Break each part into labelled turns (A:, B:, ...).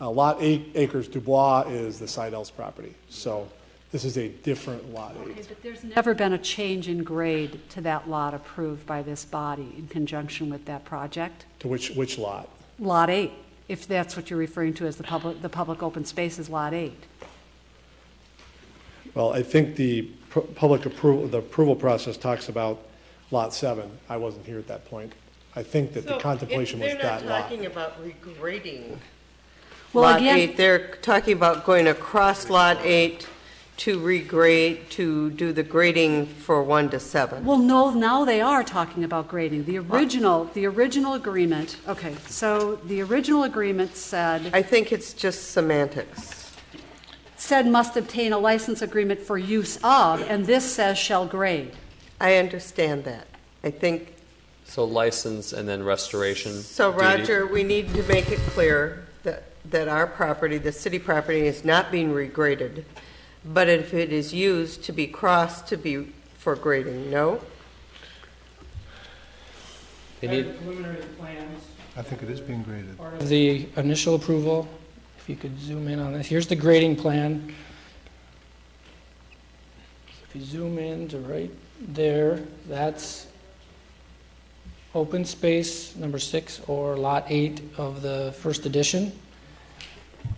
A: Uh, Lot eight acres Dubois is the Seidel's property. So this is a different lot
B: Okay,
A: eight.
B: but there's never been a change in grade to that lot approved by this body in conjunction with that project?
A: To which, which lot?
B: Lot 8, if that's what you're referring to as the public, the public open space is Lot 8.
A: Well, I think the pu- public approval, the approval process talks about lot seven. I wasn't here at that point. I think that
C: So
A: the
C: if
A: contemplation was that
C: They're not
A: lot.
C: talking about regrading
B: Well,
C: Lot
B: again,
C: 8. They're talking about going across Lot 8 to regrade, to do the grading for 1 to 7.
B: well, no, now they are talking about grading. The original, the original agreement, okay, so the original agreement said,
C: I think it's just semantics.
B: said must obtain a license agreement for use of, and this says shall grade.
C: I understand that. I think,
D: So license and then restoration.
C: so
D: duty.
C: Roger, we need to make it clear that, that our property, the city property, is not being regraded, but if it is used to be crossed to be for grading, no?
D: They
E: Part of the
D: need-
E: preliminary plans,
F: I think it is being graded.
E: part of the initial approval, if you could zoom in on this, here's the grading plan. If you zoom in to right there, that's open space number six or lot eight of the first edition.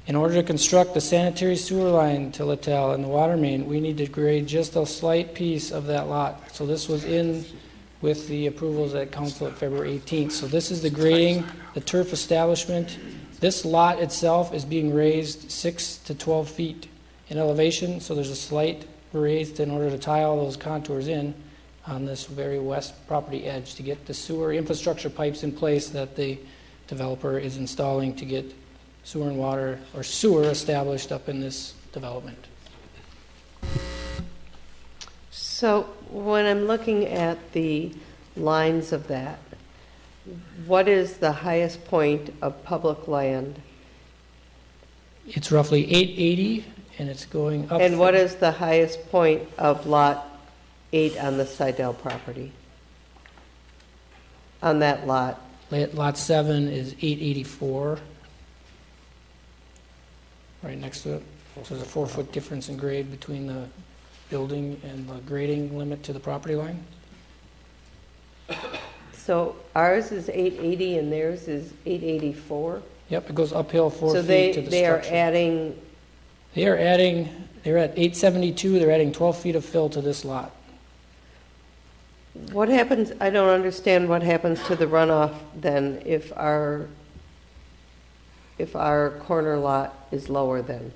E: In order to construct the sanitary sewer line to Littell and the water main, we need to grade just a slight piece of that lot. So this was in with the approvals at council at February 18th. So this is the grading, the turf establishment. This lot itself is being raised six to 12 feet in elevation, so there's a slight raise in order to tie all those contours in on this very west property edge to get the sewer infrastructure pipes in place that the developer is installing to get sewer and water, or sewer established up in this development.
C: So when I'm looking at the lines of that, what is the highest point of public land?
E: It's roughly 880, and it's going up.
C: And what
E: from-
C: is the highest point of Lot 8 on the Sidell property? On that lot?
E: Lot lot seven is eight eighty-four. Right next to it. So there's a four-foot difference in grade between the building and the grading limit to the property line.
C: So ours is 880 and theirs is 884?
E: Yep, it goes uphill four
C: So
E: feet
C: they,
E: to the
C: they are
E: structure.
C: adding,
E: They are adding, they're at eight seventy-two, they're adding twelve feet of fill to this lot.
C: what happens, I don't understand what happens to the runoff then if our, if our corner lot is lower then?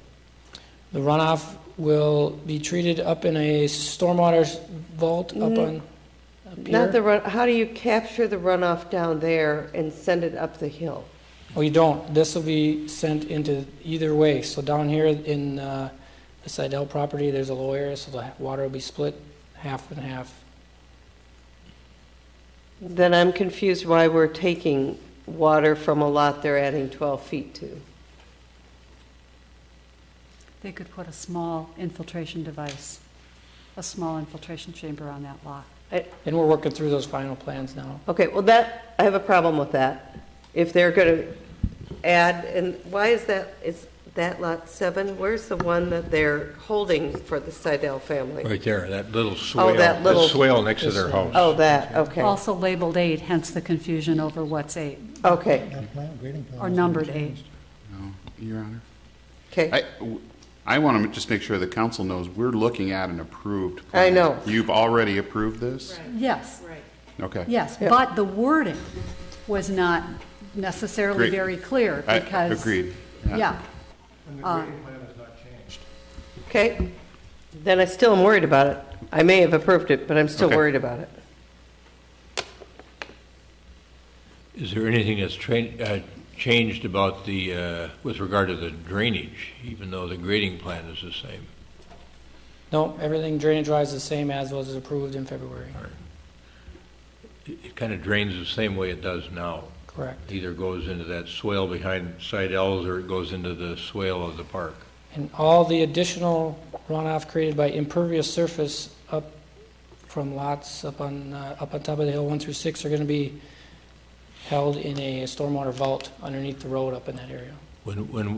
E: The runoff will be treated up in a stormwater vault up
C: Mm,
E: on, up
C: Not the
E: here.
C: run, how do you capture the runoff down there and send it up the hill?
E: Oh, you don't. This will be sent into either way. So down here in uh, the Sidell property, there's a low area, so the water will be split half and half.
C: Then I'm confused why we're taking water from a lot they're adding 12 feet to.
B: They could put a small infiltration device, a small infiltration chamber on that lot.
E: And we're working through those final plans now.
C: Okay, well, that, I have a problem with that. If they're going to add, and why is that, is that lot seven? Where's the one that they're holding for the Sidell family?
G: Right there, that little swale.
C: Oh, that little-
G: swale next to their house.
C: Oh, that, okay,
B: Also labeled eight, hence the confusion over what's eight,
C: okay,
F: That plan, grading plan.
B: or
F: hasn't
B: numbered
F: changed.
B: eight.
H: No, Your Honor.
C: okay.
H: I, w- I want to just make sure the council knows, we're looking at an approved
C: I
H: plan.
C: know.
H: You've already approved this?
B: Yes,
H: Okay.
B: yes,
C: Yeah.
B: but the wording was not necessarily
H: Great.
B: very clear
H: I-
B: because.
H: Agreed.
B: Yeah,
F: And the
B: Uh,
F: grading plan has not changed.
C: Okay, then I still am worried about it. I may have approved it, but I'm still
H: Okay.
C: worried about it.
I: Is there anything that's train, uh, changed about the, uh, with regard to the drainage, even though the grading plan is the same?
E: No, everything drainage-wise is the same as was approved in February.
I: It, it kind of drains the same way it does now.
E: Correct.
I: Either goes into that swale behind side L's or it goes into the swale of the park.
E: And all the additional runoff created by impervious surface up from lots up on, uh, up on top of the hill, one through six, are going to be held in a stormwater vault underneath the road up in that area.
I: When, when